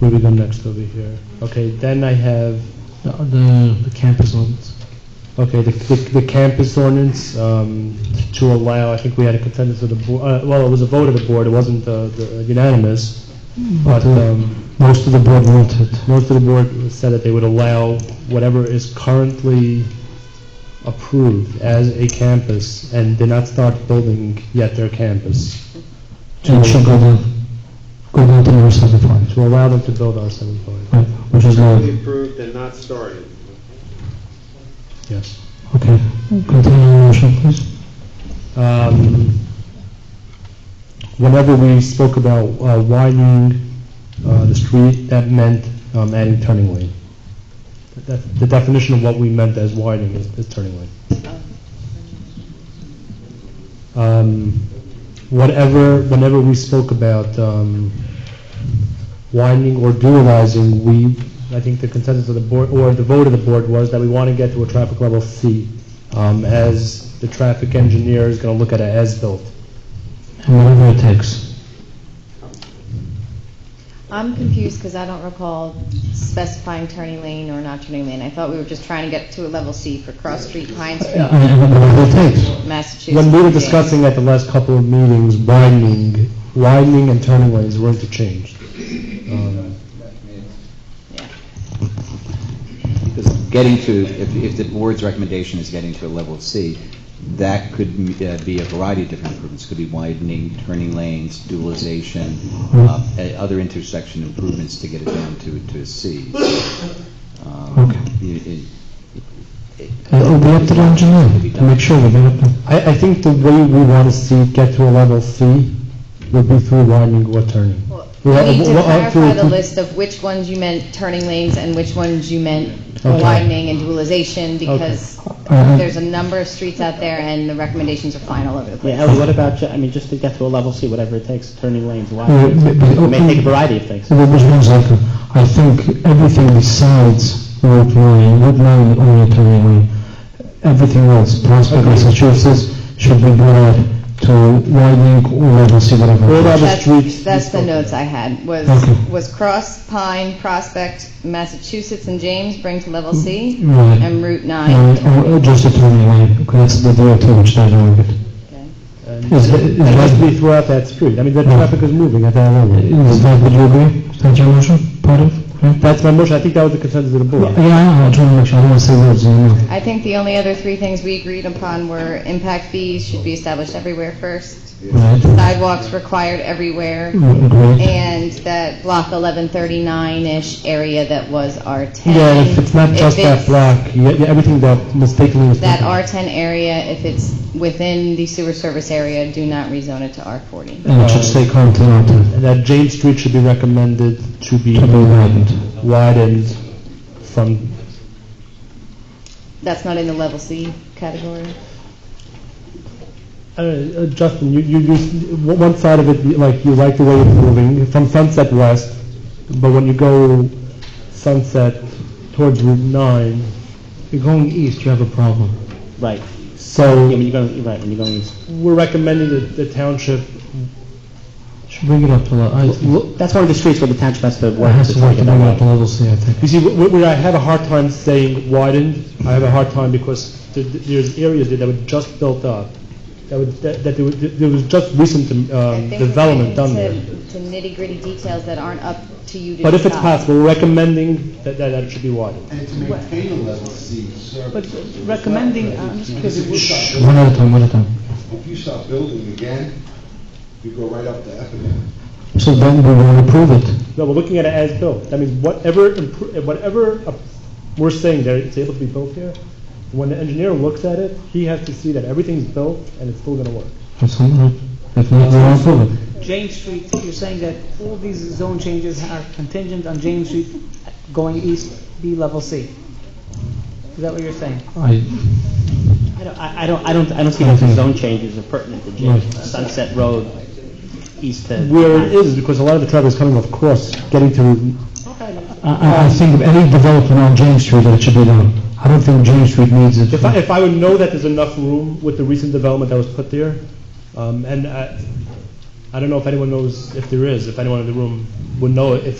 Maybe the next over here. Okay, then I have, The, the, the campus ones. okay, the, the, the campus ordinance, um, to allow, I think we had a consensus of the board, uh, well, it was a vote of the board, it wasn't, uh, the- unanimous, but, um, most of the board wanted. most of the board said that they would allow whatever is currently approved as a campus and did not start building yet their campus, And should go down, go down to number seven five, to allow them to build our seven five. right, which is low. Fully approved and not started. Yes. Okay, continue your motion, please. Um, Whenever we spoke about uh, widening uh, the street, that meant um, adding turning lane. That- The definition of what we meant as widening is is turning lane. Um, Whatever, whenever we spoke about um, widening or dualizing, we, I think the consensus of the board, or the vote of the board was that we want to get to a traffic level C, um, as the traffic engineer is going to look at it as built. And whatever it takes. I'm confused because I don't recall specifying turning lane or not turning lane. I thought we were just trying to get to a level C for Cross Street, Pine Yeah, Street, And and whatever it takes. Massachusetts. When we were discussing at the last couple of meetings, widening, widening and turning lanes were interchanged. Um, Yeah. Because getting to, if, if the board's recommendation is getting to a level of C, that could uh, be a variety of different improvements. Could be widening, turning lanes, dualization, uh, uh, other intersection improvements to get it down to, to a C. Um, Okay. it- it- And it'll be up oh, to the engineer to make sure we get it done. I, I think the way we want to see it get to a level C would be through widening or turning. Well, We Well, need to well, uh, clarify the for- list of which ones you meant turning lanes and which ones you meant Okay. Uh-huh. widening and dualization because Uh, there's a number of streets out there and the recommendations are fine all over the Yeah, place. Ellie, what about, ju- I mean, just to get to a level C, whatever it takes, turning lanes, wide, Yeah, but- but- it may take a variety of things. So there oh, was one second. I think everything besides Route 9, Route 9 is only turning lane, everything else, Prospect, Massachusetts, should be brought to widening or level C, whatever. All other That's- streets. That's the notes I had, was, Okay. was Cross, Pine, Prospect, Massachusetts, and James bring to level C, Mm-hmm. Right. and Route 9. Or or Oh, just a turning lane, because that's the DOT which does all of it. Okay. And Is that- and is As we that- throw out that street, I mean, the traffic is moving at that level. is that, would you agree? Is that your motion, part of? Yeah, That's my motion, I think that was the consensus of the board. Yeah, I know, I don't know, I don't want to say words, you know. I think the only other three things we agreed upon were impact fees should be established everywhere first, Right, sidewalks required everywhere, agreed. and that block 1139-ish area that was R10. Yeah, if it's not If just that it's block, yeah, yeah, everything that mistakenly was. That taken. R10 area, if it's within the sewer service area, do not rezone it to R40. And it should stay currently out there, And that James Street should be recommended to be to be widened. widened from, That's not in the level C category. I don't know, uh, Justin, you, you, you, one one side of it, like, you like the way it's moving, from Sunset West, but when you go Sunset towards Route 9, You're going east, you have a problem. Right. Yeah, when so you're going, you're right, when you're going east. we're recommending that the township, Should bring it up to, le- I, it That's one of the streets where the township has to work. has to work take to it bring it that up to way. level C, I think. you see, wh- wh- where I had a hard time saying widened, I have a hard time because th- th- there's areas there that were just built up, that would, that, that there was- there was just recent I um, think we're development done getting there. to- To nitty-gritty details that aren't up to you to But if it's decide. possible, we're recommending that, that that it should be widened. And to maintain a level C service. But recommending, uh, I'm just Because if you start One at a time, one at a time. building- if you start building again, you go right up to Effingham. So then we will approve it. No, we're looking at it as built. That means whatever, impro- whatever uh, we're saying there, it's able to be built here. When the engineer looks at it, he has to see that everything's built and it's still gonna work. That's all right. If not, we will approve it. James Street, you're saying that all these zone changes are contingent on James Street going east, be level C. Is that what you're saying? I, I don't, I I don't, I don't, I don't see that the zone changes are pertinent to James, Right. Sunset Road, east to. Where it is, because a lot of the traffic is coming off course, getting to, I- I, I think of any development on James Street, that it should be done. I don't think James Street needs it. if I, if I would know that there's enough room with the recent development that was put there, uh, um, and I, I don't know if anyone knows if there is, if anyone in the room would know if